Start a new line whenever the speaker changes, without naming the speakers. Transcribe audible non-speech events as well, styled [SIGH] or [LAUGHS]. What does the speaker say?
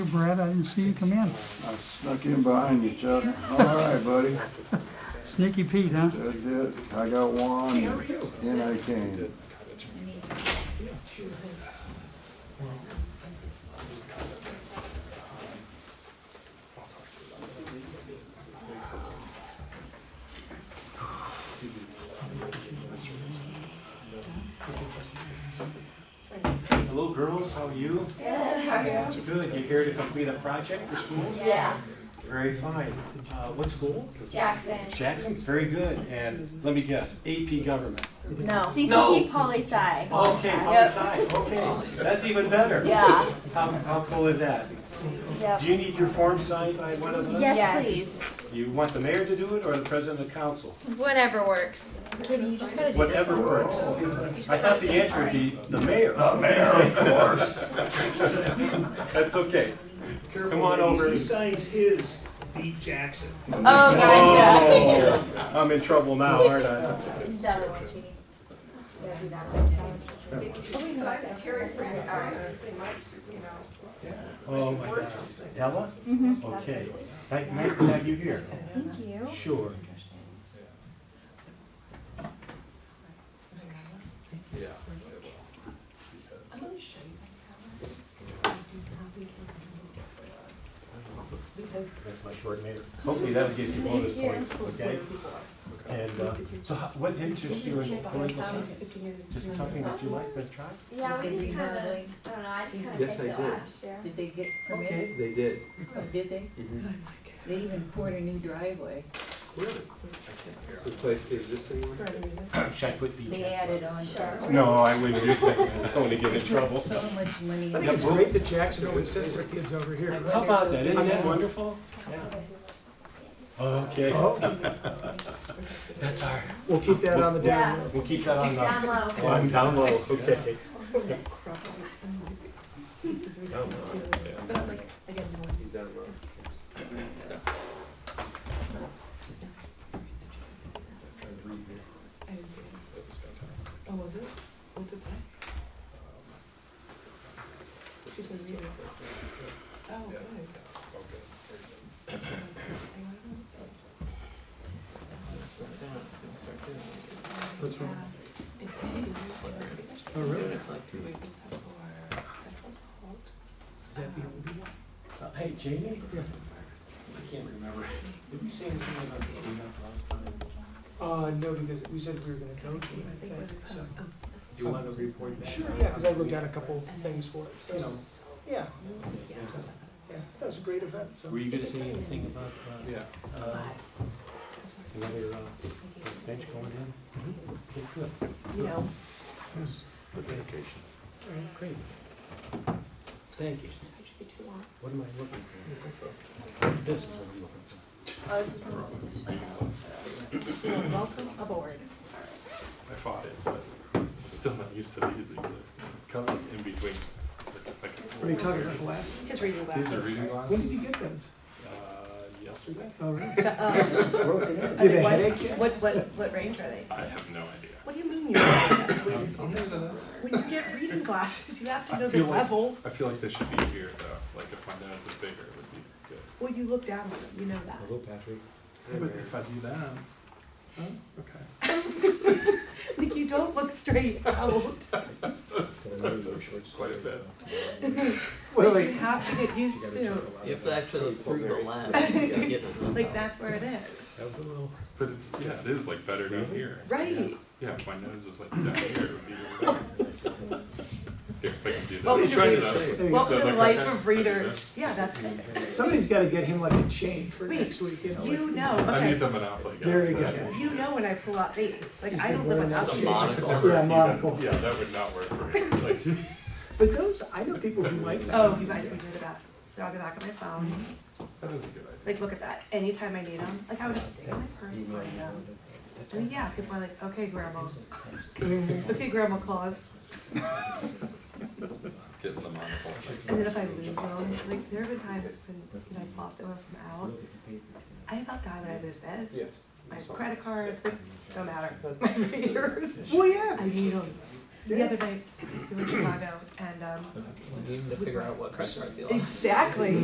Brad, I didn't see you come in.
I snuck in behind you, Chuck. All right, buddy.
Sneaky Pete, huh?
That's it. I got one, and I came.
Hello, girls, how are you? Good, you're here to complete a project for school?
Yes,
Very fine. Uh, what school?
Jackson.
Jackson, very good. And let me guess, AP Government.
No.
No.
CCP poli sci.
Okay, poli sci, okay, that's even better.
Yeah,
How, how cool is that?
yep.
Do you need your form signed by one of us?
Yes.
You want the mayor to do it or the president of council?
please. Whatever works.
Katie, you just gotta do this
Whatever
one.
works.
You just
I
gotta
thought
do
the
this
answer would
one.
be the mayor. The mayor, of course. [LAUGHS] That's okay.
Careful,
Come on
ladies.
over.
He signs his, beat Jackson.
Oh, gotcha.
Oh, I'm in trouble now, aren't I?
The other one, Judy. Yeah, do that one.
Oh, my gosh. Ella? Okay. Ni- Nice to have you here.
Thank you.
Sure. That's my short neighbor. Hopefully that'll get you bonus points, okay? And, uh, so how- what interests you in political science? Just something that you like to try?
Yeah, we just kind of, I don't know, I just kind of
Yes,
picked it
I did.
last year.
Did they get permits?
Okay.
They did.
Did they? They even poured a new driveway.
Replace the existing one?
Should I put
They
the?
added on. to-
No, I wouldn't [LAUGHS] do that. It's going to get in trouble.
So much money.
I think it's
great that Jackson always sends their kids over
I
here.
wonder
How about that?
if-
Isn't that wonderful? Oh. Okay. [LAUGHS] That's our,
We'll keep that on the
Yeah,
down. low.
we'll keep that on the.
down low.
On down [LAUGHS] low, okay.
Down low.
Oh, really?
Uh, Hey, Jamie? I can't remember. Did we say anything about the cleanup last time?
Uh, no, because we said we were gonna go to it, I think, so.
Do you want to report back?
Sure, yeah, because I looked at a couple things for it, so,
You know.
yeah, yeah, that was a great event, so.
Were you gonna say anything about, uh?
Yeah.
uh, Another, uh, bench going in? Okay, good.
You know,
All right, great. Thank you. What am I looking for? This is what I'm looking for.
oh, this is the one. So, welcome aboard.
I fought it, but still not used to these. either. It's kind of like in between. Like,
What are you talking about, glasses?
His reading
These are
glasses.
reading
When
glasses.
did you get those?
Uh, yesterday?
Oh, really? [LAUGHS]
I mean,
Did a
what-
headache hit?
What, what, what range are they?
I have no idea.
What do you mean you don't know? When you-
[COUGHS] I'm new to this.
When you get reading glasses, you have to
I
know the
feel like-
level.
I feel like they should be here though. Like if my nose is bigger, it would be good.
Well, you look down on them, you know that.
Hello,
[LAUGHS]
Patrick.
if I do that,
Oh, okay.
[LAUGHS] Like, you don't look straight out.
that's quite a bit.
Well,
Like, you
like,
have to get used to,
You have to actually look through the lens. [LAUGHS]
like, that's where it is.
But it's, yeah, it is like better down here.
Right.
Yeah, if my nose was like down here, it would be
[LAUGHS]
better. Here, if I can do that.
What would Oh. you
Try
do?
it out.
there you go.
Welcome
So
to the
like,
life
okay, I
of
do
readers.
this.
Yeah, that's it.
somebody's gotta get him like a chain for
Wait,
next week, you know? like-
You know,
I need
okay.
the Monopoly guy.
There you go.
You know when I pull out dates. Like, I
said,
don't
"Wear
live
that
without
shit."
them.
Yeah, monocle.
Yeah, that would not work for me. Like,
[LAUGHS]
But those, I know people who like that.
Oh, you guys, these are the best. Now I'll go back on my phone.
that is a good idea.
Like, look at that. Anytime I need them. Like, I would have to dig in my purse and find them. I mean, yeah, people are like, okay, grandma. [LAUGHS] Okay, grandma claus.
Getting the monocle.
And then if I lose them, like, there have been times when, you know, I've lost it when I'm out. I about die when I lose this.
Yes.
My credit cards, like, don't matter. [LAUGHS] My readers.
Well, yeah,
I need them. The other night, we were in Chicago and, um.
Need to figure out what credit card deal.
Exactly.